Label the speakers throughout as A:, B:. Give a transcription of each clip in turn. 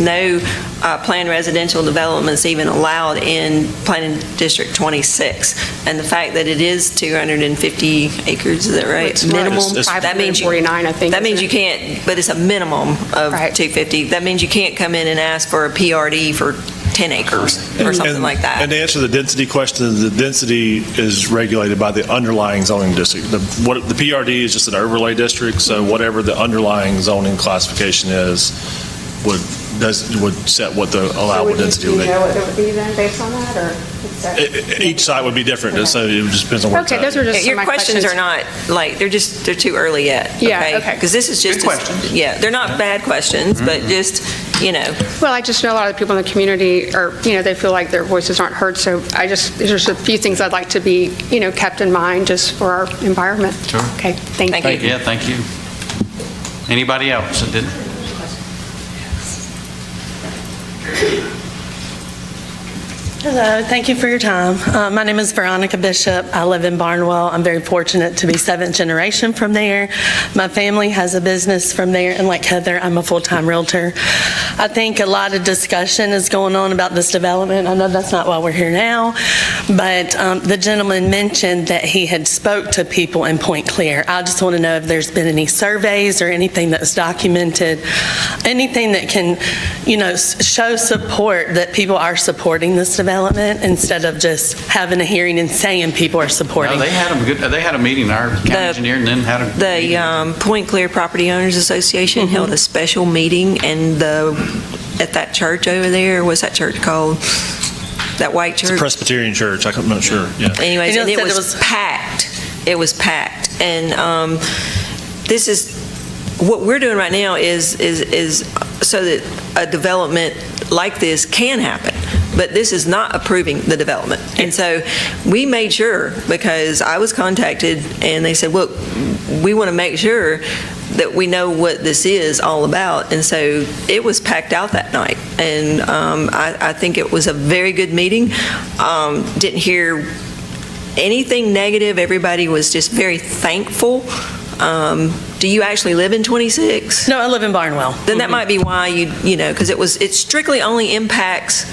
A: no uh, planned residential developments even allowed in Planning District 26. And the fact that it is 250 acres, is that right?
B: It's minimum
C: It's- it's-
A: That means you-
B: 549, I think.
A: That means you
B: isn't it?
A: can't, but it's a minimum of
B: Right.
A: 250. That means you can't come in and ask for a PRD for 10 acres
B: Mm-hmm.
A: or something
C: And-
A: like that.
C: And to answer the density question, the density is regulated by the underlying zoning district. The what- the PRD is just an overlay district, so whatever the underlying zoning classification is would, does, would set what the allowable density
D: So would you- do
C: would be.
D: you know what it would be then, based on that, or? is that-
C: E- e- Each site would be different, so it just depends on what.
B: Okay, those are just some of
A: Your
B: my
A: questions are not, like, they're just, they're too early yet.
B: Yeah, okay.
A: Because this is just.
E: Good questions. Mm-hmm.
A: Yeah, they're not bad questions, but just, you know,
B: Well, I just know a lot of the people in the community are, you know, they feel like their voices aren't heard, so I just, there's just a few things I'd like to be, you know, kept in mind just for our environment.
E: Sure.
B: Okay, thank you.
A: Thank you.
E: Yeah, thank you. Anybody else that didn't?
F: Hello, thank you for your time. Uh, My name is Veronica Bishop. I live in Barnwell. I'm very fortunate to be seventh generation from there. My family has a business from there, and like Heather, I'm a full-time Realtor. I think a lot of discussion is going on about this development. I know that's not why we're here now, but um, the gentleman mentioned that he had spoke to people in Point Clear. I just want to know if there's been any surveys or anything that's documented, anything that can, you know, s- show support that people are supporting this development instead of just having a hearing and saying people are
E: No,
F: supporting.
E: they had a good, they had a meeting, our county
A: The-
E: engineer, and then had a.
A: the
E: meeting.
A: um, Point Clear Property Owners Association held a special meeting and the, at that church over there, what's that church called? That white
C: It's a
A: church?
C: Presbyterian church, I'm not sure, yeah.
A: Anyways,
F: You know,
A: and it
F: said it
A: was
F: was-
A: packed. It was packed. And um, this is, what we're doing right now is, is, is so that a development like this can happen. But this is not approving the development. And so we made sure, because I was contacted and they said, look, we want to make sure that we know what this is all about. And so it was packed out that night. And um, I, I think it was a very good meeting. Um, Didn't hear anything negative. Everybody was just very thankful. Um, Do you actually live in 26?
F: No, I live in Barnwell.
A: Then that might be why you, you know, because it was, it strictly only impacts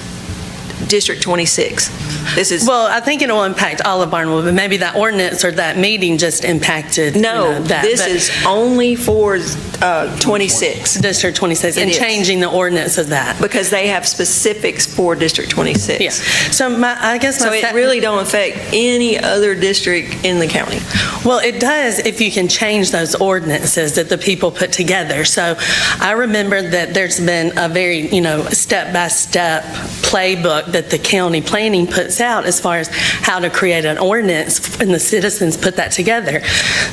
A: District 26. This is,
F: Mm-hmm. Well, I think it'll impact all of Barnwell, but maybe that ordinance or that meeting just impacted. you
A: no,
F: know, that,
A: this
F: but
A: is only for uh, 26,
F: District 26
A: It
F: and
A: is.
F: changing the ordinance of that.
A: because they have specifics for District 26.
F: Yeah. So my, I guess my.
A: So it
F: sec-
A: really don't affect any other district in the county.
F: Well, it does if you can change those ordinances that the people put together. So I remember that there's been a very, you know, step-by-step playbook that the county planning puts out as far as how to create an ordinance, and the citizens put that together.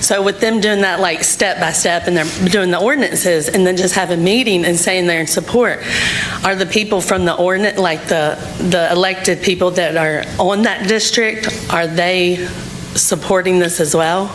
F: So with them doing that, like, step-by-step, and they're doing the ordinances, and then just have a meeting and saying they're in support, are the people from the ordinance, like, the, the elected people that are on that district, are they supporting this as well?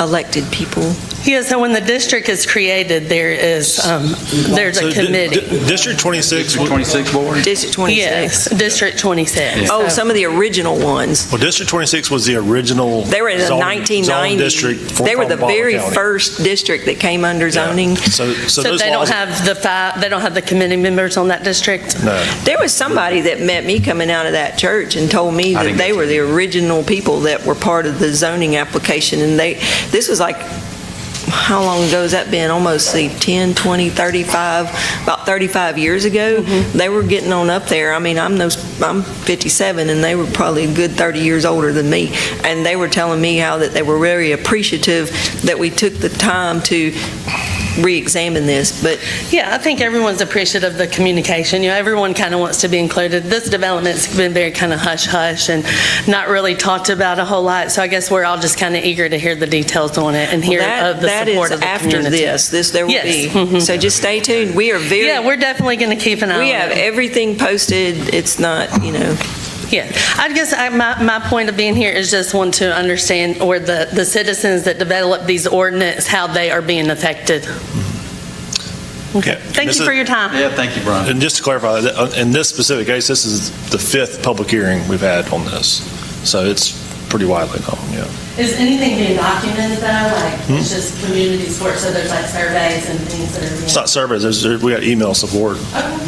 A: Elected people.
F: Yeah, so when the district is created, there is, um, there's
C: So
F: a
C: di- di-
F: committee.
C: District 26,
E: District
C: would-
E: 26 board?
A: District 26.
F: Yes, District 26.
A: Oh,
F: So-
A: some of the original ones.
C: well, District 26 was the original.
A: They were in the
C: zone- zone
A: 1990s.
C: district for-
A: They were
C: from
A: the
C: Baldwin
A: very
C: County.
A: first district that came under
C: Yeah.
A: zoning.
C: So, so
F: So
C: those
F: they don't
C: laws,
F: have the five, they don't have the committee members on that district?
C: no.
A: There was somebody that met me coming out of that church and told me
E: I
A: that
E: didn't
A: they
E: get
A: were
E: to.
A: the original people that were part of the zoning application, and they, this was like, how long ago has that been? Almost see, 10, 20, 35, about 35 years ago.
E: Mm-hmm.
A: They were getting on up there. I mean, I'm those, I'm 57, and they were probably a good 30 years older than me. And they were telling me how that they were very appreciative that we took the time to re-examine this, but
F: Yeah, I think everyone's appreciative of the communication. You know, everyone kind of wants to be included. This development's been very kind of hush-hush and not really talked about a whole lot. So I guess we're all just kind of eager to hear the details on it and hear
A: That-
F: of the support of the community.
A: That is after this, this, there will
F: Yes.
A: be.
F: Mhm.
A: So just stay tuned. We are very.
F: Yeah, we're Um, definitely going to keep an eye on it.
A: We have everything posted. It's not, you know,
F: Yeah, I guess I- my, my point of being here is just want to understand, or the, the citizens that develop these ordinance, how they are being affected.
C: Okay.
F: Thank
C: This
F: you
C: is-
F: for your time.
E: Yeah, thank you, Brian.
C: And just to clarify, that, uh, in this specific case, this is the fifth public hearing we've had on this, so it's pretty widely known, yeah.
F: Is anything being documented though, like, it's just community support, so there's like surveys and things that are being?
C: It's not surveys, there's, there- we got email support.